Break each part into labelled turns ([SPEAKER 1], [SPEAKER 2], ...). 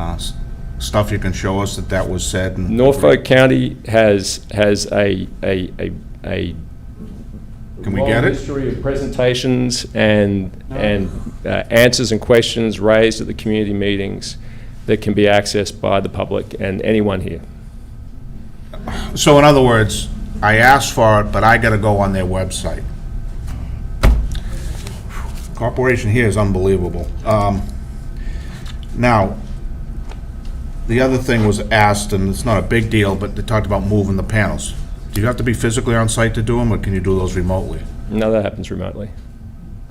[SPEAKER 1] uh, stuff you can show us that that was said and?
[SPEAKER 2] Norfolk County has, has a, a, a, a.
[SPEAKER 1] Can we
[SPEAKER 2] long
[SPEAKER 1] get it?
[SPEAKER 2] History of presentations and, and uh, answers and questions raised at the community meetings that can be accessed by the public and anyone here.
[SPEAKER 1] So in other words, I asked for it, but I gotta go on their website. Corporation here is unbelievable. Um, Now, the other thing was asked, and it's not a big deal, but they talked about moving the panels. Do you have to be physically on site to do them, or can you do those remotely?
[SPEAKER 2] No, that happens remotely.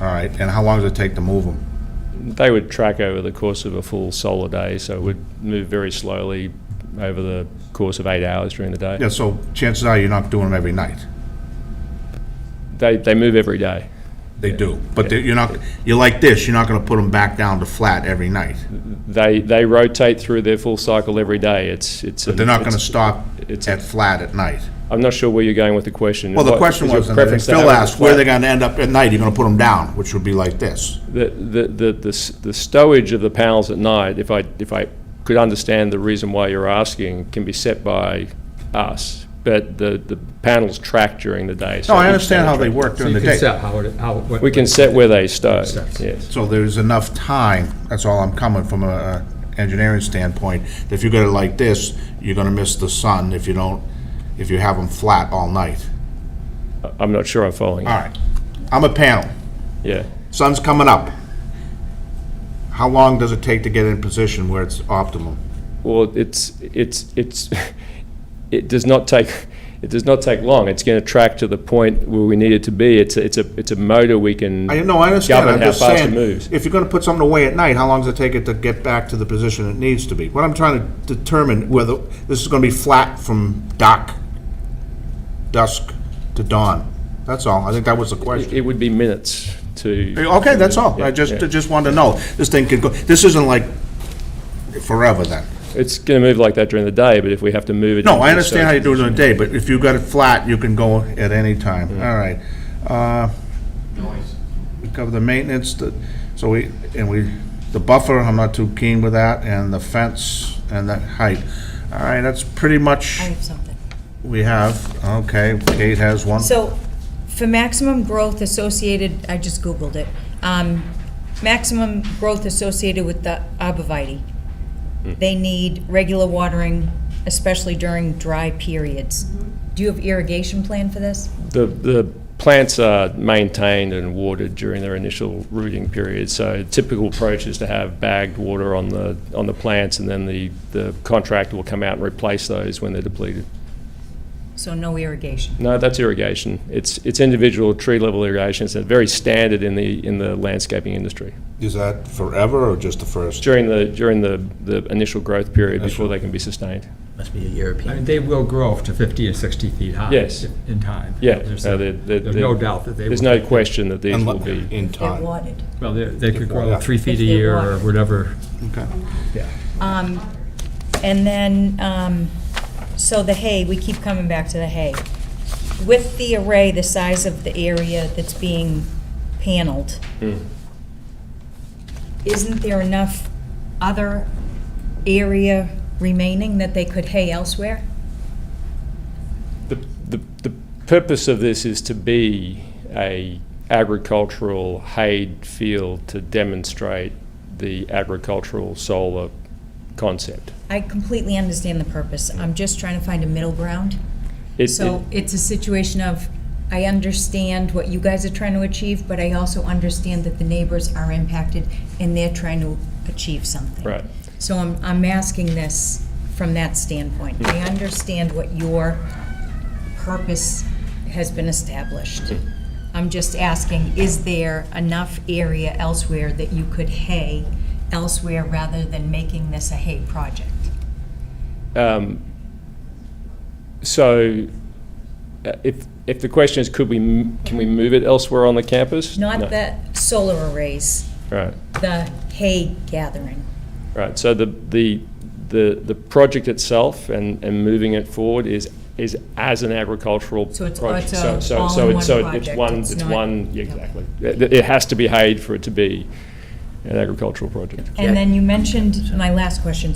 [SPEAKER 1] All right, and how long does it take to move them?
[SPEAKER 2] They would track over the course of a full solar day, so it would move very slowly over the course of eight hours during the day.
[SPEAKER 1] Yeah, so chances are you're not doing them every night.
[SPEAKER 2] They, they move every day.
[SPEAKER 1] They do, but they- you're not, you're like this, you're not gonna put them back down to flat every night.
[SPEAKER 2] They, they rotate through their full cycle every day. It's, it's.
[SPEAKER 1] But they're not gonna stop
[SPEAKER 2] it's a-
[SPEAKER 1] at flat at night.
[SPEAKER 2] I'm not sure where you're going with the question.
[SPEAKER 1] Well, the
[SPEAKER 2] What-
[SPEAKER 1] question
[SPEAKER 2] is your
[SPEAKER 1] was, and then
[SPEAKER 2] preference to
[SPEAKER 1] Phil
[SPEAKER 2] have it
[SPEAKER 1] asked, where
[SPEAKER 2] flat?
[SPEAKER 1] they're gonna end up at night, you're gonna put them down, which would be like this.
[SPEAKER 2] The, the, the, the s- the stowage of the panels at night, if I, if I could understand the reason why you're asking, can be set by us, but the, the panels track during the day. so
[SPEAKER 1] No, I
[SPEAKER 2] each
[SPEAKER 1] understand
[SPEAKER 2] panel
[SPEAKER 1] how they
[SPEAKER 2] track.
[SPEAKER 1] work
[SPEAKER 3] So
[SPEAKER 1] during
[SPEAKER 3] you
[SPEAKER 1] the
[SPEAKER 3] can
[SPEAKER 1] day.
[SPEAKER 3] set how it, how. what-
[SPEAKER 2] We can set where they stow,
[SPEAKER 3] Sets.
[SPEAKER 2] yes.
[SPEAKER 1] So there's enough time, that's all I'm coming from a- a engineering standpoint. If you go to like this, you're gonna miss the sun if you don't, if you have them flat all night.
[SPEAKER 2] I'm not sure I'm following. you.
[SPEAKER 1] All right, I'm a panel,
[SPEAKER 2] Yeah.
[SPEAKER 1] sun's coming up. How long does it take to get in position where it's optimum?
[SPEAKER 2] Well, it's, it's, it's, it does not take, it does not take long. It's going to track to the point where we need it to be. It's, a- it's a, it's a motor we can.
[SPEAKER 1] I, no, I understand, I'm
[SPEAKER 2] Govern how
[SPEAKER 1] just
[SPEAKER 2] fast it
[SPEAKER 1] saying,
[SPEAKER 2] moves.
[SPEAKER 1] if you're gonna put something away at night, how long does it take it to get back to the position it needs to be? What I'm trying to determine whether this is gonna be flat from dark, dusk to dawn. That's all, I think that was the question.
[SPEAKER 2] It would be minutes to.
[SPEAKER 1] Okay, that's all, I
[SPEAKER 2] Yeah,
[SPEAKER 1] just,
[SPEAKER 2] yeah.
[SPEAKER 1] I just wanted to know, this thing could go, this isn't like forever then.
[SPEAKER 2] It's going to move like that during the day, but if we have to move it.
[SPEAKER 1] No,
[SPEAKER 2] into
[SPEAKER 1] I
[SPEAKER 2] the
[SPEAKER 1] understand how
[SPEAKER 2] surge-
[SPEAKER 1] you do it in a day, but if you got it flat, you can go at any time, all right. Uh,
[SPEAKER 4] noise.
[SPEAKER 1] We cover the maintenance, the- so we, and we, the buffer, I'm not too keen with that, and the fence, and that height. All right, that's pretty much
[SPEAKER 5] I have something.
[SPEAKER 1] we have. Okay, Kate has one.
[SPEAKER 5] So, for maximum growth associated, I just Googled it, um, maximum growth associated with the arborvitae,
[SPEAKER 1] Hmm.
[SPEAKER 5] they need regular watering, especially during dry periods. Do you have irrigation plan for this?
[SPEAKER 2] The, the plants are maintained and watered during their initial rooting period, so typical approach is to have bagged water on the, on the plants, and then the, the contractor will come out and replace those when they're depleted.
[SPEAKER 5] So no irrigation.
[SPEAKER 2] No, that's irrigation. It's, it's individual tree-level irrigation. It's very standard in the, in the landscaping industry,
[SPEAKER 1] Is that forever or just the first?
[SPEAKER 2] during the, during the, the initial growth period before they can be sustained.
[SPEAKER 6] Must be a
[SPEAKER 3] I mean,
[SPEAKER 6] European.
[SPEAKER 3] They will grow up to 50 or 60 feet high.
[SPEAKER 2] Yes.
[SPEAKER 3] In time.
[SPEAKER 2] Yeah.
[SPEAKER 3] There's
[SPEAKER 2] no,
[SPEAKER 3] a-
[SPEAKER 2] they're- they're-
[SPEAKER 3] there's no doubt that they will.
[SPEAKER 2] There's no question that these will
[SPEAKER 1] Unlo-
[SPEAKER 2] be.
[SPEAKER 1] In
[SPEAKER 5] They're
[SPEAKER 1] time.
[SPEAKER 5] watered.
[SPEAKER 3] Well, they- they could grow
[SPEAKER 1] Yeah.
[SPEAKER 3] three feet a
[SPEAKER 5] If they
[SPEAKER 3] year
[SPEAKER 5] want.
[SPEAKER 3] or whatever.
[SPEAKER 1] Okay.
[SPEAKER 5] Um, And then, um, so the hay, we keep coming back to the hay. With the array, the size of the area that's being paneled,
[SPEAKER 2] Hmm.
[SPEAKER 5] isn't there enough other area remaining that they could hay elsewhere?
[SPEAKER 2] The, the, the purpose of this is to be a agricultural hayed field to demonstrate the agricultural solar concept.
[SPEAKER 5] I completely understand the purpose. I'm just trying to find a middle ground.
[SPEAKER 2] It-
[SPEAKER 5] So it's a situation of, I understand what you guys are trying to achieve, but I also understand that the neighbors are impacted and they're trying to achieve something.
[SPEAKER 2] it- Right.
[SPEAKER 5] So I'm, I'm asking this from that standpoint.
[SPEAKER 2] Hmm.
[SPEAKER 5] I understand what your purpose has been established.
[SPEAKER 2] Hmm.
[SPEAKER 5] I'm just asking, is there enough area elsewhere that you could hay elsewhere rather than making this a hay project?
[SPEAKER 2] Um, So uh, if, if the question is, could we, m- can we move it elsewhere on the campus? No.
[SPEAKER 5] Not the solar arrays,
[SPEAKER 2] Right.
[SPEAKER 5] the hay gathering.
[SPEAKER 2] Right, so the, the, the, the project itself and, and moving it forward is, is as an agricultural
[SPEAKER 5] So it's-
[SPEAKER 2] project.
[SPEAKER 5] it's
[SPEAKER 2] So
[SPEAKER 5] a
[SPEAKER 2] so- so
[SPEAKER 5] all-in-one
[SPEAKER 2] it's- so It's
[SPEAKER 5] project,
[SPEAKER 2] one,
[SPEAKER 5] it's
[SPEAKER 2] it's
[SPEAKER 5] not-
[SPEAKER 2] one, yeah,
[SPEAKER 5] yeah.
[SPEAKER 2] exactly. It, it has to be hayed for it to be an agricultural project.
[SPEAKER 5] And then you mentioned, my last question,